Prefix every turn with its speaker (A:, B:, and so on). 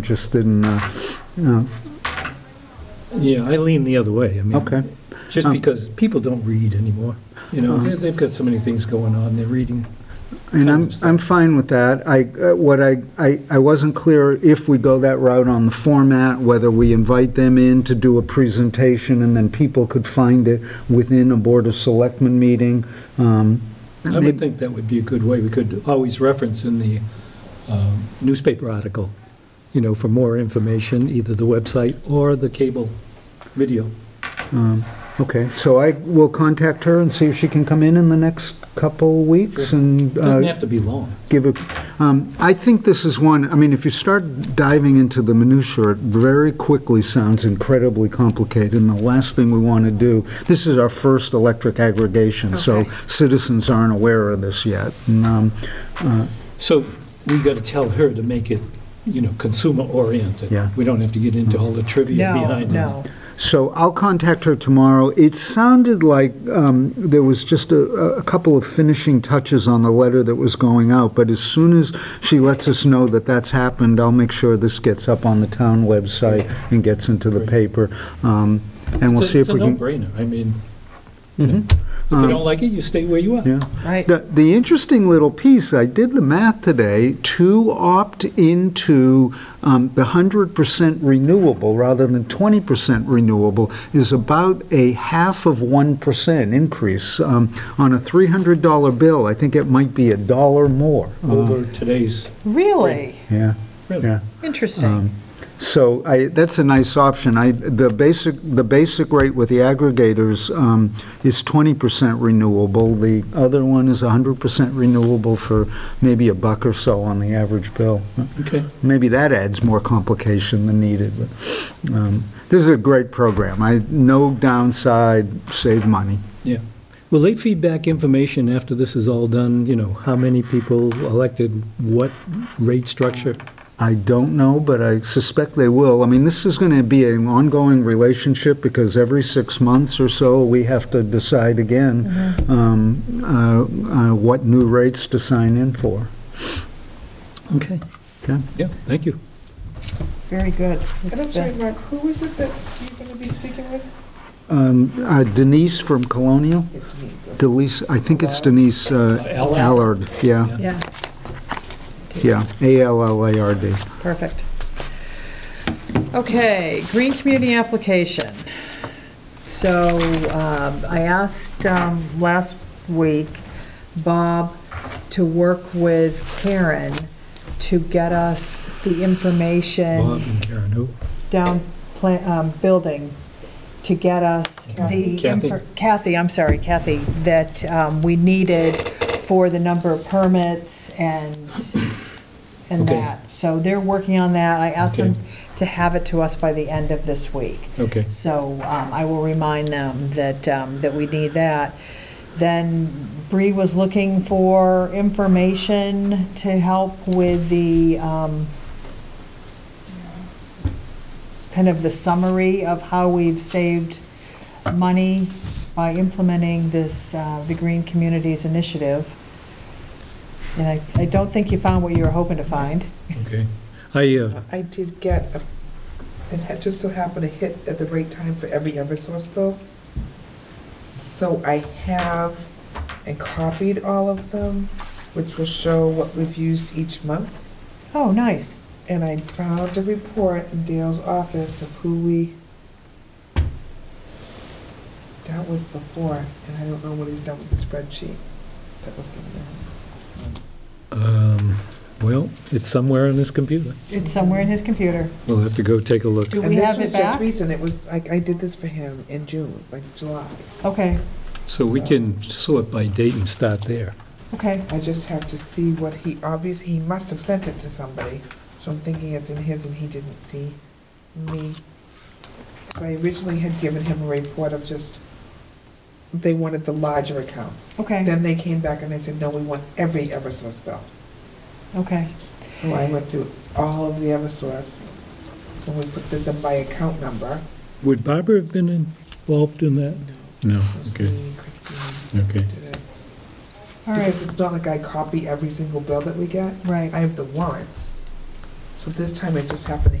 A: interested in, uh, you know,
B: Yeah, I lean the other way. I mean,
A: okay.
B: Just
A: Um, uh-huh.
B: because people don't read anymore, you know, they- they've got so many things going on, they're reading.
A: And
B: Tons
A: I'm,
B: of stuff.
A: I'm fine with that. I, uh, what I, I, I wasn't clear if we go that route on the format, whether we invite them in to do a presentation and then people could find it within a Board of Selectmen meeting. Um,
B: I would
A: maybe-
B: think that would be a good way. We could always reference in the um, newspaper article, you know, for more information, either the website or the cable video.
A: Okay, so I will contact her and see if she can come in in the next couple weeks and. uh,
B: Doesn't have to be long.
A: give a, um, I think this is one, I mean, if you start diving into the minutia, it very quickly sounds incredibly complicated, and the last thing we want to do, this is our first electric aggregation, so
C: Okay.
A: citizens aren't aware of this yet. And, um,
B: So we got to tell her to make it, you know, consumer-oriented.
A: Yeah.
B: We don't have to get into all the trivia
C: No,
B: behind it.
C: no.
A: So I'll contact her tomorrow. It sounded like um, there was just a, a couple of finishing touches on the letter that was going out, but as soon as she lets us know that that's happened, I'll make sure this gets up on the town website and gets into the paper. Um, And we'll
B: It's a-
A: see if we
B: It's a
A: can. Mm-hmm. Uh,
B: no-brainer. I mean, you know, if you don't like it, you stay where you are.
A: Yeah.
C: Right.
A: The, the interesting little piece, I did the math today, to opt into um, the 100% renewable rather than 20% renewable is about a half of 1% increase. Um, On a $300 bill, I think it might be a dollar more.
B: Over today's,
C: Really?
A: Yeah, Uh-huh.
B: really.
A: yeah. Um,
C: Interesting.
A: So I, that's a nice option. I, the basic, the basic rate with the aggregators um, is 20% renewable. The other one is 100% renewable for maybe a buck or so on the average bill.
B: Okay.
A: Maybe that adds more complication than needed. but, um, This is a great program. I, no downside, save money.
B: Yeah. Will they feed back information after this is all done? You know, how many people elected, what rate structure?
A: I don't know, but I suspect they will. I mean, this is going to be an ongoing relationship because every six months or so, we have to decide again um, uh, uh, what new rates to sign in for.
B: Okay.
A: Okay?
B: Yeah, thank you.
C: Very good.
D: And I'm
C: It's
D: sorry,
C: been-
D: Mark, who is it that you're going to be speaking with?
A: Um, uh, Denise from Colonial, Denise, I think it's Denise uh,
B: Allard?
A: Allard, yeah,
C: Yeah,
A: yeah, A-L-L-A-R-D.
C: perfect. Okay, green community application. So um, I asked um, last week Bob to work with Karen to get us the information.
B: Bob and Karen, who?
C: down pla- um, building to get us the,
B: Kathy.
C: infor- Kathy, I'm sorry, Kathy, that um, we needed for the number of permits and, and
B: Okay.
C: that. So they're working on that. I asked them
B: Okay.
C: to have it to us by the end of this week.
B: Okay.
C: So um, I will remind them that, um, that we need that. Then Bree was looking for information to help with the, um, kind of the summary of how we've saved money by implementing this, uh, the Green Communities Initiative. And I, I don't think you found what you were hoping to find.
B: Okay. I, uh,
D: I did get, a- it had just so happened to hit at the right time for every Eversource bill. So I have and copied all of them, which will show what we've used each month.
C: Oh, nice.
D: And I found a report in Dale's office of who we dealt with before, and I don't know what he's done with the spreadsheet that was given to him.
B: um, well, it's somewhere on this computer.
C: It's somewhere in his computer.
B: We'll have to go take a look.
C: Do we have
D: And this
C: it
D: was just
C: back?
D: recent, it was, like, I did this for him in June, like July.
C: Okay,
B: So we can sort by date and start there.
C: okay.
D: I just have to see what he, obviously, he must have sent it to somebody, so I'm thinking it's in his and he didn't see me. So I originally had given him a report of just, they wanted the larger accounts.
C: Okay,
D: Then they came back and they said, no, we want every Eversource bill.
C: okay,
D: So I went through all of the Eversource, and we put them by account number.
B: Would Barbara have been involved in that? No,
D: It was me, Christine,
B: okay.
D: did it.
C: all
D: Because
C: right,
D: it's not like I copy every single bill that we get.
C: right.
D: I have the warrants. So this time it just happened to